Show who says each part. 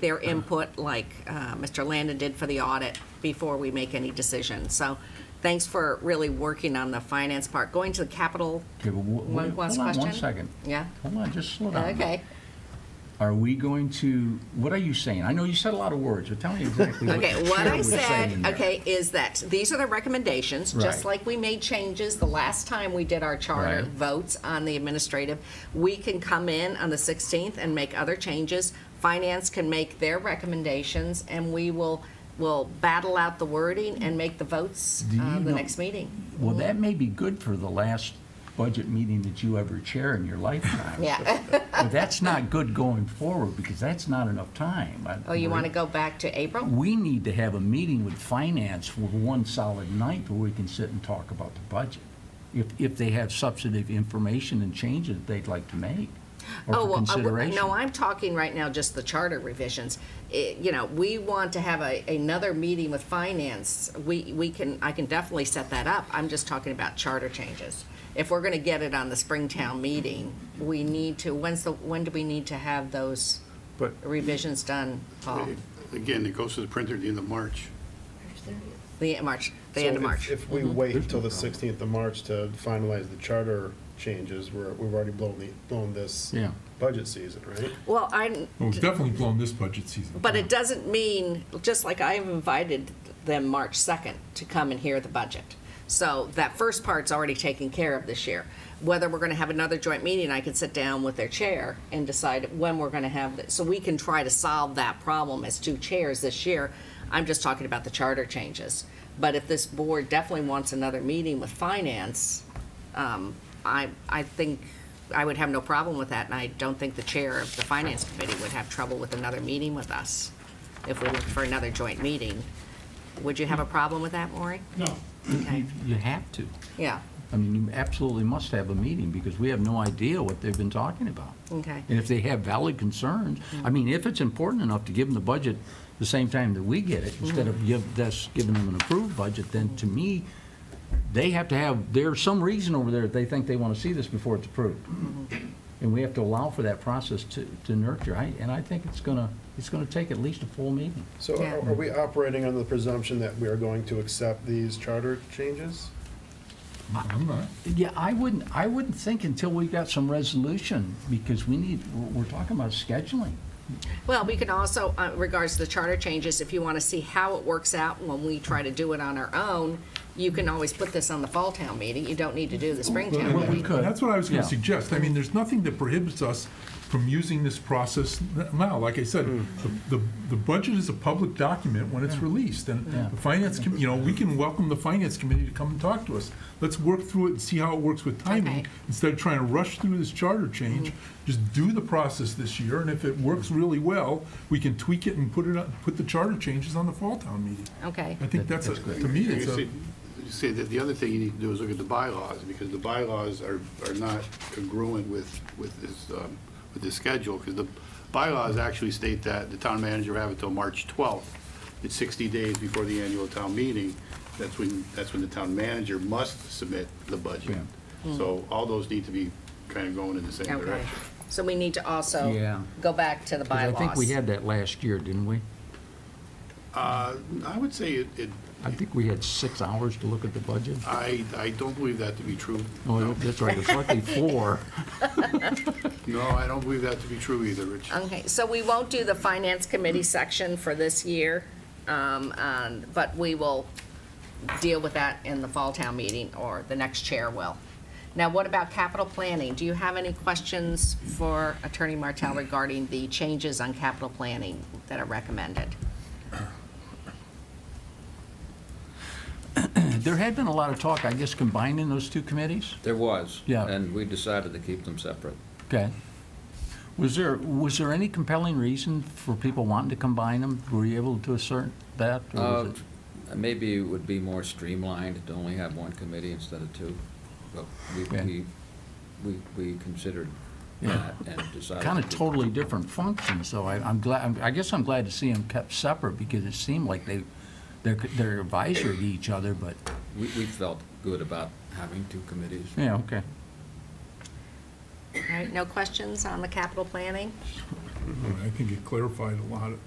Speaker 1: their input like uh, Mr. Landon did for the audit before we make any decision. So thanks for really working on the finance part. Going to the capital,
Speaker 2: Okay, but wha-
Speaker 1: One
Speaker 2: wait,
Speaker 1: last
Speaker 2: hold on one
Speaker 1: question?
Speaker 2: second.
Speaker 1: yeah?
Speaker 2: Hold on, just slow down.
Speaker 1: Uh, Okay,
Speaker 2: Are we going to, what are you saying? I know you said a lot of words, but tell me exactly what the
Speaker 1: okay.
Speaker 2: chair
Speaker 1: What I
Speaker 2: was saying
Speaker 1: said,
Speaker 2: there.
Speaker 1: okay, is that these are the recommendations, just
Speaker 2: Right.
Speaker 1: like we made changes the last time we did our charter
Speaker 2: Right.
Speaker 1: votes on the administrative. We can come in on the 16th and make other changes. Finance can make their recommendations and we will, will battle out the wording and make the votes
Speaker 2: Do you
Speaker 1: uh, the
Speaker 2: know-
Speaker 1: next meeting.
Speaker 2: Well, that may be good for the last budget meeting that you ever chair in your lifetime.
Speaker 1: Yeah.
Speaker 2: But that's not good going forward, because that's not enough time. I-
Speaker 1: Oh, you want to go back to April? Oh,
Speaker 2: We need to have a meeting with finance for one solid night where we can sit and talk about the budget. If, if they have substantive information and changes they'd like to make,
Speaker 1: Oh
Speaker 2: or for
Speaker 1: well, I w-
Speaker 2: consideration.
Speaker 1: No, I'm talking right now, just the charter revisions. It- You know, we want to have a, another meeting with finance. We, we can, I can definitely set that up. I'm just talking about charter changes. If we're going to get it on the Springtown meeting, we need to, when's the, when do we need to have those
Speaker 3: But
Speaker 1: revisions done, Paul?
Speaker 3: again, it goes to the printer at the end of March.
Speaker 1: The, March, the end of
Speaker 4: So if-
Speaker 1: March.
Speaker 4: If we wait until the 16th of March to finalize the charter changes, we're, we've already blown the, blown this
Speaker 2: Yeah.
Speaker 4: budget season, right?
Speaker 1: Well, I'm,
Speaker 5: Well, we've definitely blown this budget season.
Speaker 1: But it doesn't mean, just like I have invited them March 2nd to come and hear the budget. So that first part's already taken care of this year. Whether we're going to have another joint meeting, I can sit down with their chair and decide when we're going to have, it. so we can try to solve that problem as two chairs this year. I'm just talking about the charter changes. But if this board definitely wants another meeting with finance, um, I, I think I would have no problem with that, and I don't think the chair of the finance committee would have trouble with another meeting with us if we looked for another joint meeting. Would you have a problem with that, Maury?
Speaker 3: No.
Speaker 1: Okay,
Speaker 2: You have to.
Speaker 1: yeah,
Speaker 2: I mean, you absolutely must have a meeting, because we have no idea what they've been talking about.
Speaker 1: okay.
Speaker 2: And if they have valid concerns, I mean, if it's important enough to give them the budget the same time that we get it, instead of give, us giving them an approved budget, then to me, they have to have, there's some reason over there that they think they want to see this before it's approved. And we have to allow for that process to, to nurture, I, and I think it's gonna, it's gonna take at least a full meeting.
Speaker 4: So
Speaker 1: Yeah.
Speaker 4: are are we operating under the presumption that we are going to accept these charter changes?
Speaker 5: I'm not.
Speaker 2: Yeah, I wouldn't, I wouldn't think until we got some resolution, because we need, we're, we're talking about scheduling.
Speaker 1: Well, we can also, uh, regards to the charter changes, if you want to see how it works out when we try to do it on our own, you can always put this on the fall town meeting. You don't need to do the spring town
Speaker 2: Well,
Speaker 1: meeting.
Speaker 2: we could.
Speaker 5: That's what I was going
Speaker 2: Yeah.
Speaker 5: to suggest. I mean, there's nothing that prohibits us from using this process n- now. Like I said, the, the- the budget is a public document when it's released. And
Speaker 2: Mm. Yeah.
Speaker 5: the finance, com- you know, we can welcome the finance committee to come and talk to us. Let's work through it and see how it works with
Speaker 1: Okay.
Speaker 5: timing. Instead of trying to rush through this charter
Speaker 2: Mm.
Speaker 5: change, just do the process this year. And if it works really well, we can tweak it and put it, on- put the charter changes on the fall town meeting.
Speaker 1: Okay.
Speaker 5: I think that's, a-
Speaker 2: That's good.
Speaker 5: to me, it's a.
Speaker 3: You say that the other thing you need to do is look at the bylaws, because the bylaws are, are not congruent with, with this, um, with this schedule, because the bylaws actually state that the town manager will have until March 12th. It's 60 days before the annual town meeting. That's when, that's when the town manager must submit the budget. So all those need to be kind of going in the same
Speaker 1: Okay.
Speaker 3: direction.
Speaker 1: So we need to also
Speaker 2: Yeah.
Speaker 1: go back to the
Speaker 2: 'Cause
Speaker 1: bylaws.
Speaker 2: I think we had that last year, didn't we?
Speaker 3: Uh, I would say it, it-
Speaker 2: I think we had six hours to look at the budget.
Speaker 3: I, I don't believe that to be true.
Speaker 2: Oh, that's right, it's likely four.
Speaker 3: No, I don't believe that to be true either, Rich.
Speaker 1: Okay, so we won't do the finance committee section for this year, um, um, but we will deal with that in the fall town meeting, or the next chair will. Now, what about capital planning? Do you have any questions for Attorney Martell regarding the changes on capital planning that are recommended?
Speaker 2: There had been a lot of talk, I guess, combining those two committees?
Speaker 6: There was.
Speaker 2: Yeah.
Speaker 6: And we decided to keep them separate.
Speaker 2: Okay. Was there, was there any compelling reason for people wanting to combine them? Were you able to assert that? or was
Speaker 6: Uh,
Speaker 2: it-
Speaker 6: Maybe it would be more streamlined to only have one committee instead of two, but we,
Speaker 2: Yeah.
Speaker 6: we, we we considered
Speaker 2: Yeah.
Speaker 6: that and decided.
Speaker 2: Kind of
Speaker 6: to keep-
Speaker 2: totally different functions, so I- I'm glad, I'm- I guess I'm glad to see them kept separate because it seemed like they, they're they're advisory to each other, but,
Speaker 6: We, we felt good about having two committees.
Speaker 2: yeah, okay.
Speaker 1: All right, no questions on the capital planning?
Speaker 5: I think it clarified a lot of